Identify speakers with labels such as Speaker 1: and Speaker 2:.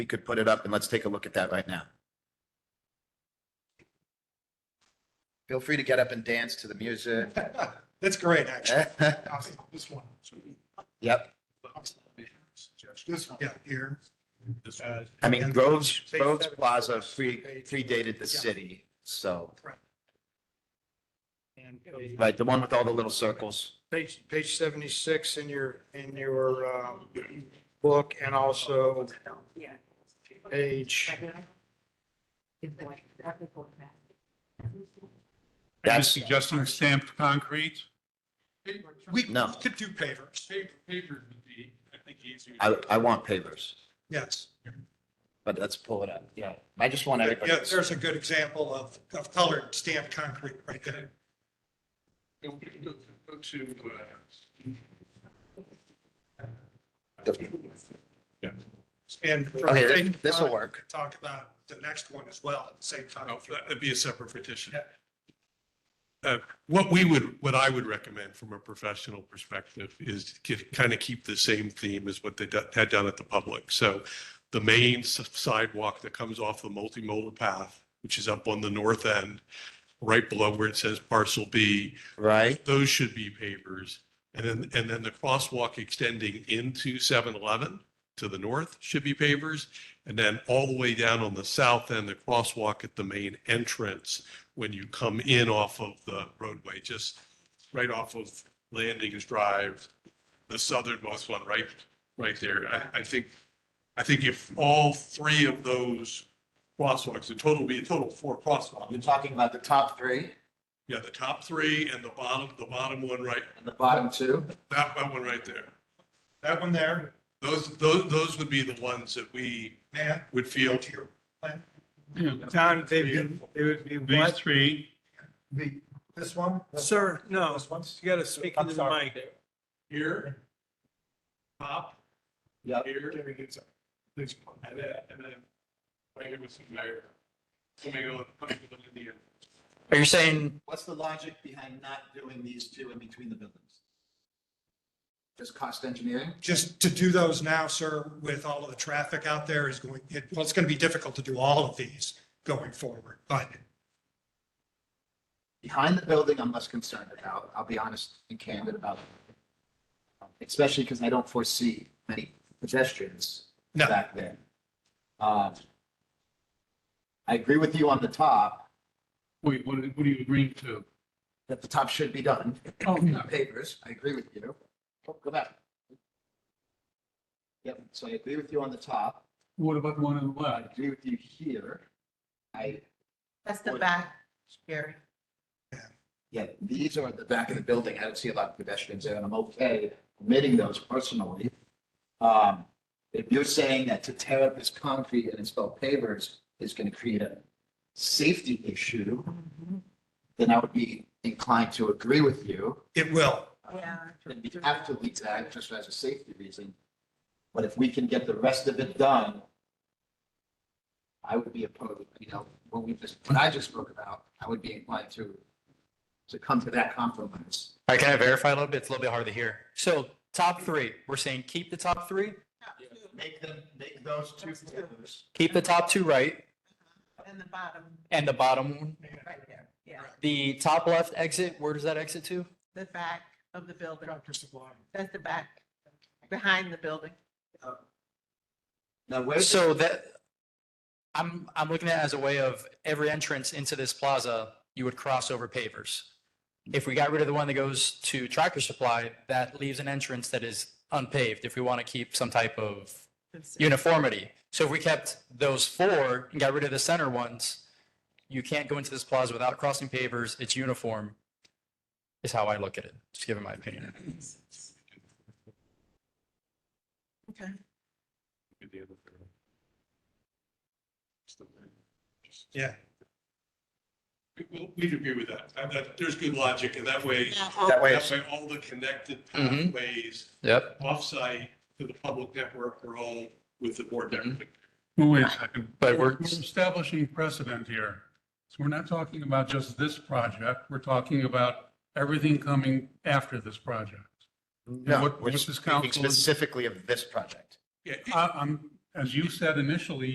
Speaker 1: we could put it up and let's take a look at that right now. Feel free to get up and dance to the music.
Speaker 2: That's great, actually. This one.
Speaker 1: Yep.
Speaker 2: This one, yeah, here. Uh,
Speaker 1: I mean, Groves, Groves Plaza pre- predated the city, so,
Speaker 2: And page-
Speaker 1: right, the one with all the little circles.
Speaker 2: Page, page seventy-six in your, in your, um, book and also
Speaker 3: Yeah.
Speaker 2: page,
Speaker 4: Are you
Speaker 1: That's-
Speaker 4: suggesting stamped concrete?
Speaker 2: we
Speaker 1: No.
Speaker 2: could do pavers,
Speaker 4: Paper would be, I think, easier.
Speaker 1: I, I want pavers,
Speaker 2: yes.
Speaker 1: but let's pull it up. Yeah. I just want
Speaker 2: Yeah,
Speaker 1: everybody.
Speaker 2: there's a good example of, of colored stamped concrete right there.
Speaker 4: Go go to, uh,
Speaker 2: And.
Speaker 1: Okay, this- this'll work.
Speaker 2: Talk about the next one as well, at the same time.
Speaker 4: no, Oh, that'd be a separate petition.
Speaker 2: Yeah.
Speaker 4: Uh, What we would, what I would recommend from a professional perspective is to kind of keep the same theme as what they do- had done at the public. So the main s- sidewalk that comes off the multimodal path, which is up on the north end, right below where it says parcel B,
Speaker 1: Right?
Speaker 4: those should be pavers. And then, and then the crosswalk extending into 7-Eleven to the north should be pavers. And then all the way down on the south end, the crosswalk at the main entrance, when you come in off of the roadway, just right off of Landings Drive, the southernmost one, right, right there. I, I think, I think if all three of those crosswalks, the total, be a total of four crosswalks.
Speaker 1: You're talking about the top three
Speaker 4: Yeah, the top three and the bottom, the bottom one right,
Speaker 1: and the bottom two?
Speaker 4: that that one right there.
Speaker 2: That one there,
Speaker 4: Those, those, those would be the ones that we
Speaker 2: man,
Speaker 4: would feel.
Speaker 2: to your plan.
Speaker 5: Tom, they would be, they would be
Speaker 4: These
Speaker 5: what?
Speaker 4: three,
Speaker 2: The, this one?
Speaker 5: Sir, no,
Speaker 2: This one's.
Speaker 5: you gotta speak
Speaker 2: I'm
Speaker 5: into the
Speaker 2: sorry.
Speaker 5: mic.
Speaker 4: here, top,
Speaker 1: Yep.
Speaker 4: here,
Speaker 2: Gary gets up.
Speaker 4: and then, and then right here with some mayor. Coming on, coming on in the end.
Speaker 1: Are you saying? What's the logic behind not doing these two in between the buildings? Just cost engineering?
Speaker 2: Just to do those now, sir, with all of the traffic out there is going, it, well, it's going to be difficult to do all of these going forward, but
Speaker 1: Behind the building, I'm less concerned about. I'll be honest and candid about it. Especially because I don't foresee many pedestrians
Speaker 2: No.
Speaker 1: back there. Um, I agree with you on the top,
Speaker 6: Wait, what, what are you agreeing to?
Speaker 1: that the top should be done.
Speaker 6: Oh, no.
Speaker 1: Papers, I agree with you. Oh, Go back. Yep, so I agree with you on the top.
Speaker 6: What about the one on the
Speaker 1: I
Speaker 6: left?
Speaker 1: agree with you here. I,
Speaker 3: That's the back, Gary.
Speaker 1: yeah, these are at the back of the building. I don't see a lot of pedestrians there and I'm okay omitting those personally. Um, if you're saying that to tear up this concrete and install pavers is going to create a safety issue, then I would be inclined to agree with you.
Speaker 2: it will.
Speaker 3: Yeah.
Speaker 1: And we have to leave that just as a safety reason. But if we can get the rest of it done, I would be opposed, you know, what we just, what I just spoke about, I would be inclined to, to come to that compromise.
Speaker 7: All right, can I verify a little bit? It's a little bit hard to hear. So top three, we're saying keep the top three,
Speaker 1: Make them, make those two pillars.
Speaker 7: keep the top two right,
Speaker 3: And the bottom,
Speaker 7: and the bottom one.
Speaker 3: right there, yeah,
Speaker 7: The top left exit, where does that exit to?
Speaker 3: the back of the building,
Speaker 2: Dr. Sublime.
Speaker 3: that's the back, behind the building.
Speaker 1: Now, where's,
Speaker 7: So that, I'm, I'm looking at it as a way of every entrance into this plaza, you would cross over pavers. If we got rid of the one that goes to Tractor Supply, that leaves an entrance that is unpaved if we want to keep some type of uniformity. So if we kept those four and got rid of the center ones, you can't go into this plaza without crossing pavers. It's uniform. Is how I look at it, just giving my opinion.
Speaker 3: Okay,
Speaker 2: Yeah.
Speaker 4: We- We'd agree with that. I- that- There's good logic and that way,
Speaker 1: that way,
Speaker 4: that
Speaker 1: it's-
Speaker 4: way all the connected
Speaker 7: Mhm.
Speaker 4: pathways
Speaker 7: Yep.
Speaker 4: offsite to the public network are all with the board network.
Speaker 6: Well, wait a second.
Speaker 7: But we're-
Speaker 6: Establishing precedent here. So we're not talking about just this project. We're talking about everything coming after this project.
Speaker 1: no,
Speaker 6: what-
Speaker 1: we're
Speaker 6: what's this
Speaker 1: speaking
Speaker 6: council-
Speaker 1: specifically of this project.
Speaker 4: Yeah,
Speaker 6: I, I'm, as you said initially,